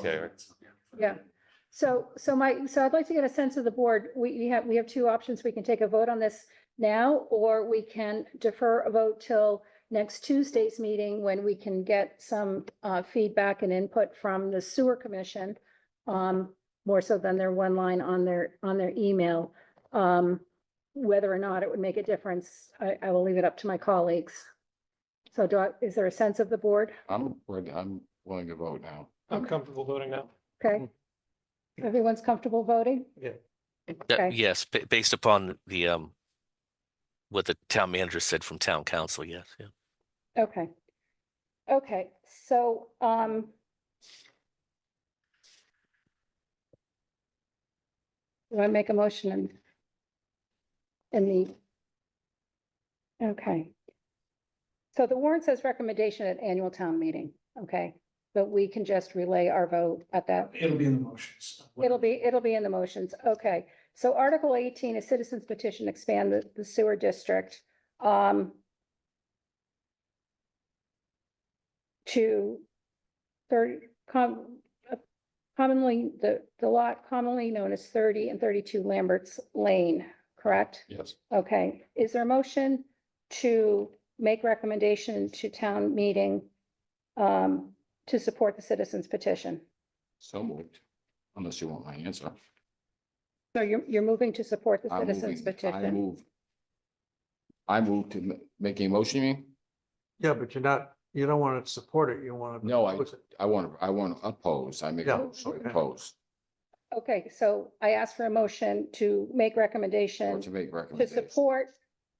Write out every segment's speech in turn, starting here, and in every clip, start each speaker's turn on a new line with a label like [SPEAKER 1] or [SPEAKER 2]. [SPEAKER 1] Okay,
[SPEAKER 2] Yeah. So, so my, so I'd like to get a sense of the board. We, we have, we have two options. We can take a vote on this now, or we can defer a vote till next Tuesday's meeting when we can get some uh, feedback and input from the sewer commission. Um, more so than their one line on their, on their email. Um, whether or not it would make a difference, I, I will leave it up to my colleagues. So do I, is there a sense of the board?
[SPEAKER 3] I'm, ready- I'm willing to vote now.
[SPEAKER 4] I'm comfortable voting now.
[SPEAKER 2] Okay. Everyone's comfortable voting?
[SPEAKER 5] That-
[SPEAKER 2] Okay.
[SPEAKER 5] Yes, ba- based upon the, um, what the town manager said from town council, yes, yeah.
[SPEAKER 2] Okay. Okay, so, um. Do I make a motion in? In the. Okay. So the warrant says recommendation at annual town meeting, okay, but we can just relay our vote at that.
[SPEAKER 4] It'll be in the motions.
[SPEAKER 2] It'll be, it'll be in the motions. Okay. So Article eighteen, a citizen's petition, expand the, the sewer district. Um. To thirty, com, uh, commonly, the, the lot commonly known as thirty and thirty-two Lambert's Lane, correct?
[SPEAKER 3] Yes,
[SPEAKER 2] Okay. Is there a motion to make recommendation to town meeting? Um, to support the citizen's petition?
[SPEAKER 3] so moved, unless you want my answer.
[SPEAKER 2] So you're, you're moving to support the
[SPEAKER 3] I'm
[SPEAKER 2] citizens
[SPEAKER 3] moving- I
[SPEAKER 2] petition?
[SPEAKER 3] move. I move to ma- make a motion, you mean?
[SPEAKER 4] Yeah, but you're not, you don't want to support it, you want to.
[SPEAKER 3] No, I- I want to, I want to oppose, I make a
[SPEAKER 4] Yeah.
[SPEAKER 3] motion to oppose,
[SPEAKER 2] Okay, so I asked for a motion to make
[SPEAKER 3] or
[SPEAKER 2] recommendation
[SPEAKER 3] to make
[SPEAKER 2] to
[SPEAKER 3] recommendations.
[SPEAKER 2] support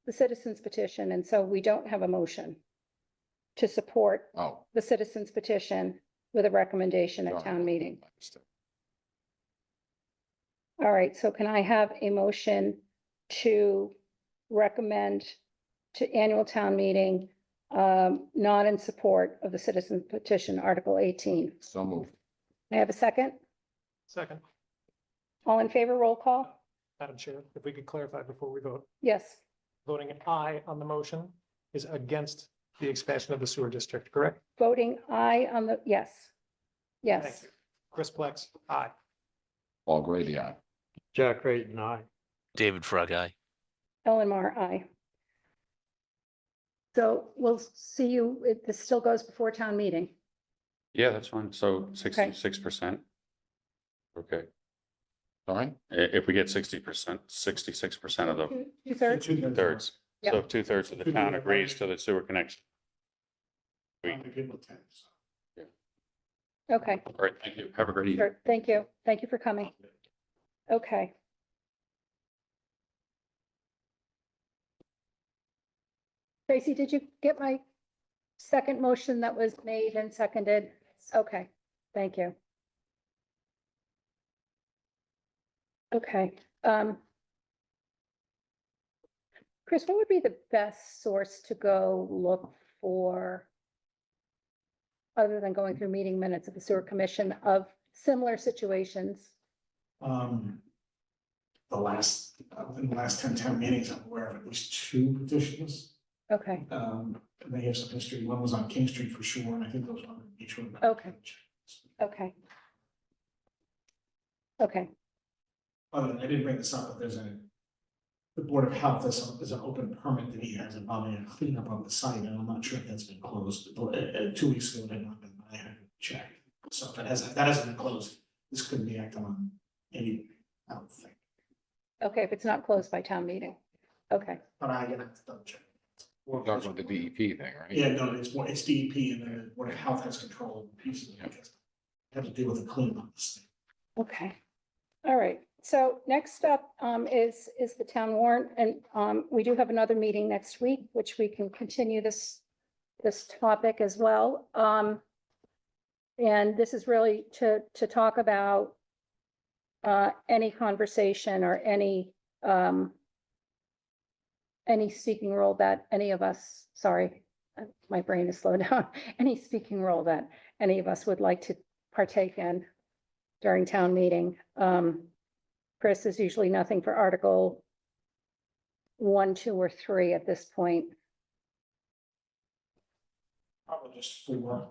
[SPEAKER 2] the citizens petition, and so we don't have a motion to support
[SPEAKER 3] Oh.
[SPEAKER 2] the citizens petition with a recommendation at
[SPEAKER 3] darn.
[SPEAKER 2] town meeting.
[SPEAKER 3] Understood.
[SPEAKER 2] All right, so can I have a motion to recommend to annual town meeting, um, not in support of the citizens petition, Article eighteen?
[SPEAKER 3] So moved,
[SPEAKER 2] May I have a second?
[SPEAKER 4] Second,
[SPEAKER 2] All in favor, roll call?
[SPEAKER 4] Madam Chair, if we could clarify before we vote,
[SPEAKER 2] Yes.
[SPEAKER 4] voting aye on the motion is against the expansion of the sewer district, correct?
[SPEAKER 2] Voting aye on the, yes.
[SPEAKER 4] Thank
[SPEAKER 2] Yes.
[SPEAKER 4] you. Chris Plex, aye.
[SPEAKER 3] Paul Grady, aye.
[SPEAKER 4] Jack Creighton, aye.
[SPEAKER 5] David Frog, aye.
[SPEAKER 2] Ellen Mar, aye. So we'll see you, it, this still goes before town meeting.
[SPEAKER 1] yeah, that's fine. So sixty-six percent. Okay,
[SPEAKER 3] Sorry,
[SPEAKER 1] I- if we get sixty percent, sixty-six percent of the
[SPEAKER 2] Two- Two-thirds,
[SPEAKER 1] thirds, so
[SPEAKER 2] Yeah.
[SPEAKER 1] if two-thirds of the town agrees to the sewer connection.
[SPEAKER 2] okay,
[SPEAKER 1] All right, thank you. Have a great evening.
[SPEAKER 2] sure, thank you, thank you for coming. Okay. Tracy, did you get my second motion that was made and seconded? Okay, thank you. Okay, um. Chris, what would be the best source to go look for? Other than going through meeting minutes of the sewer commission of similar situations?
[SPEAKER 6] Um, the last, uh, in the last ten town meetings, I'm aware of at least two petitions.
[SPEAKER 2] Okay,
[SPEAKER 6] Um, and they have some history. One was on King Street for sure, and I think those were on each one.
[SPEAKER 2] Okay. okay. Okay,
[SPEAKER 6] Other than, I didn't bring this up, but there's a, the Board of Health is, is an open permit that he has involving a cleanup on the site, and I'm not sure if that's been closed. But, uh, uh, two weeks ago, it had not been, I had to check. So if it hasn't, that hasn't been closed, this couldn't be acted on anyway, I don't think.
[SPEAKER 2] okay, if it's not closed by town meeting, okay,
[SPEAKER 6] But I gotta double check.
[SPEAKER 3] we're talking about the E DEP thing, right?
[SPEAKER 6] Yeah, no, it's, more- it's DEP and then Board of Health has control of the piece of it. Have to deal with the cleanup.
[SPEAKER 2] okay. All right, so next up um is is the town warrant and um we do have another meeting next week, which we can continue this this topic as well. Um and this is really to to talk about uh any conversation or any um any speaking role that any of us, sorry, uh, my brain is slowed down, any speaking role that any of us would like to partake in during town meeting. Um, Chris is usually nothing for article one, two, or three at this point,
[SPEAKER 6] Probably just four.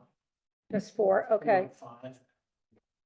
[SPEAKER 2] just four, okay.
[SPEAKER 6] Five.